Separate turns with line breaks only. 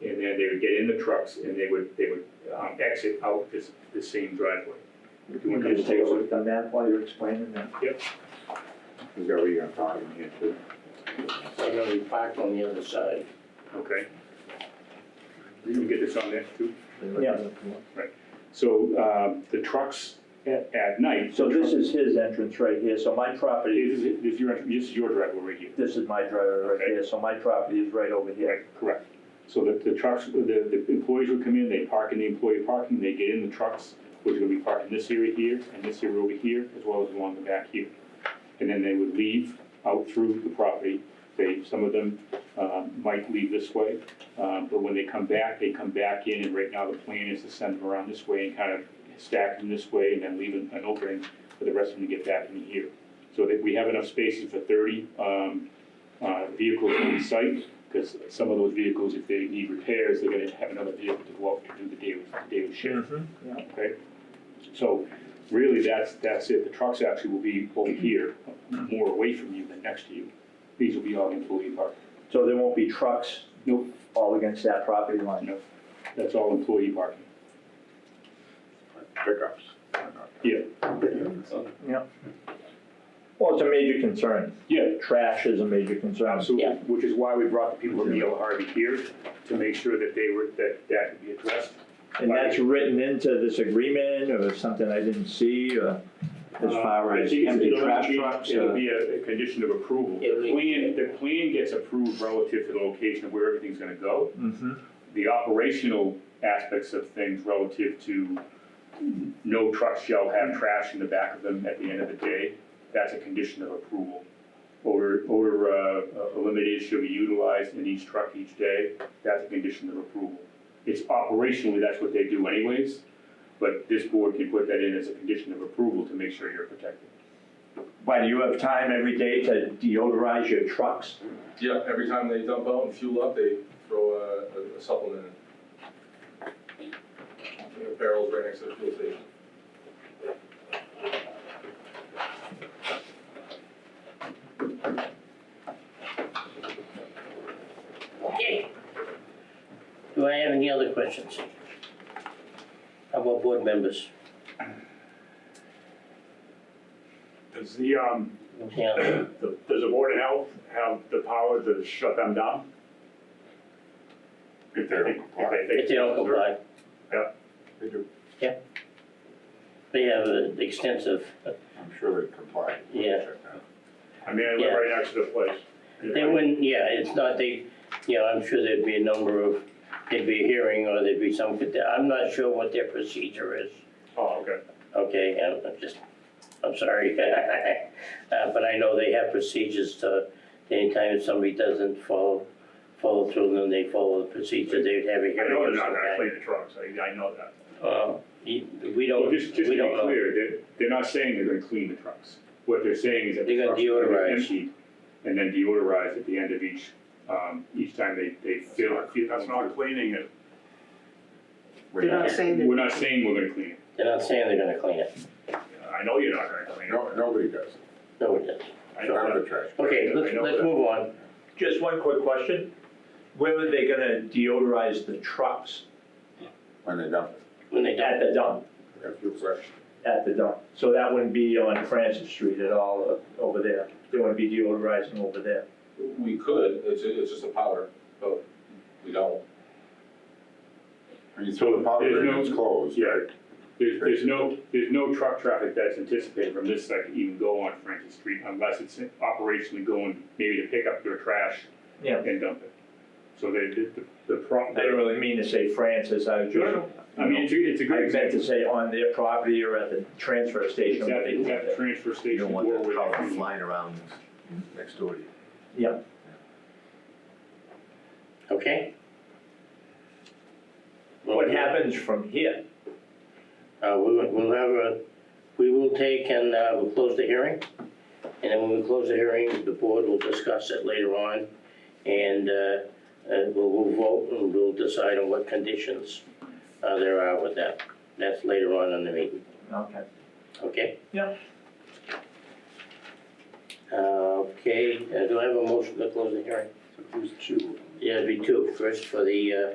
and they would get in the trucks and they would, they would um, exit out this, the same driveway.
If you want to just take a look on that while you're explaining that.
Is that what you're gonna talk in here too?
They're gonna be parked on the other side.
Okay. You get this on there too?
Yeah.
So um, the trucks at, at night.
So
the
this
truck-
is his entrance right here, so my property,
This is, this is your, this is your driveway right here.
this is my driveway right
Okay.
here, so my property is right over here.
Right, correct. So the, the trucks, the, the employees would come in, they park in the employee parking, they get in the trucks, which are gonna be parked in this area here, and this area over here, as well as along the back here. And then they would leave out through the property, they, some of them, um, might leave this way, um, but when they come back, they come back in, and right now the plan is to send them around this way and kind of stack them this way, and then leave an, an opening for the rest of them to get back in here. So that we have enough spaces for thirty, um, uh, vehicles on site, because some of those vehicles, if they need repairs, they're gonna have another vehicle to go up to do the daily, daily shift,
Mm-hmm.
okay? So really, that's, that's it, the trucks actually will be over here, more away from you than next to you. These will be all employee park,
So there won't be trucks
Nope.
all against that property line?
no, that's all employee parking.
Pickups.
Yeah,
Well, it's a major concern.
yeah,
Trash is a major concern.
absolutely,
Yeah.
which is why we brought the people from Neil Harvey here, to make sure that they were, that that could be addressed.
And that's written into this agreement or something I didn't see or as far
Uh, I
as
think it's-
empty
it'll
trash
be-
trucks?
It'll
uh,
be a, a condition of approval.
It'll
The
be-
plan, the plan gets approved relative to the location of where everything's gonna go.
mhm.
The operational aspects of things relative to no truck shall have trash in the back of them at the end of the day, that's a condition of approval. Odor, odor, uh, eliminated shall be utilized in each truck each day, that's a condition of approval. It's operationally, that's what they do anyways, but this board can put that in as a condition of approval to make sure you're protected.
Why, do you have time every day to deodorize your trucks?
Yeah, every time they dump out and fuel up, they throw a- a supplement in. They have Barrels right next to the fuel station.
Okay. Do I have any other questions? How about board members?
Does the, um,
Yeah,
the- does the Board of Health have the power to shut them down? If they're.
if they don't comply,
They do.
they have an extensive,
I'm sure they comply.
Yeah.
I mean, I live right next to the place.
they wouldn't, yeah, it's not, they, you know, I'm sure there'd be a number of, there'd be a hearing or there'd be some, I'm not sure what their procedure is.
Oh, okay.
Okay, I'm- I'm just, I'm sorry. Uh, But I know they have procedures to, anytime somebody doesn't follow, follow through, then they follow the procedure, they'd have a
I
hearing
know
or
they're not gonna
something.
clean the trucks, I, I know that.
Uh, you- We
Well,
don't,
Oh, just, just
we
to be
don't know.
clear, they're, they're not saying they're gonna clean the trucks. What they're saying is that the
They're gonna
trucks are gonna be
deodorize.
emptied and then deodorized at the end of each, um, each time they, they fill.
That's not cleaning it.
We're
They're not
not-
saying
We're
that,
not saying we're gonna clean it.
They're not saying they're gonna clean it.
I know you're not gonna clean it.
No, nobody does.
No, it doesn't.
I know
Not
that.
the trash.
Okay, let's,
I know
let's
that.
move on.
Just one quick question. Where are they gonna deodorize the trucks?
When they dump
When they
At
dump it,
the dump,
it, they fuel fresh.
at the dump. So that wouldn't be on Francis Street at all, uh, over there. They wouldn't be deodorizing over there.
We could, it's, it's just a powder, but we don't.
I mean, so the powder
There's no-
room's closed.
Yeah, there's, there's no, there's no truck traffic that's anticipated from this site to even go on Franklin Street unless it's operationally going maybe to pick up their trash
Yeah.
and dump it. So they, the, the
I
problem,
didn't really mean to say Francis, I was just,
I mean, it's a, it's a
I
great
meant
example.
to say on their property or at the transfer station.
It's at, it's at the transfer
You
station.
don't want
or where
that
they
power
clean.
flying around next door to you.
okay?
What happens from here?
Uh, we will, we'll have a, we will take and, uh, we'll close the hearing. And then when we close the hearing, the board will discuss it later on. And, uh, uh, we'll, we'll vote and we'll decide on what conditions, uh, there are with that. That's later on in the meeting,
Okay.
okay?
Yeah.
Uh, okay, uh, do I have a motion to close the hearing?
Who's two?
Yeah, it'd be two. First for the, uh,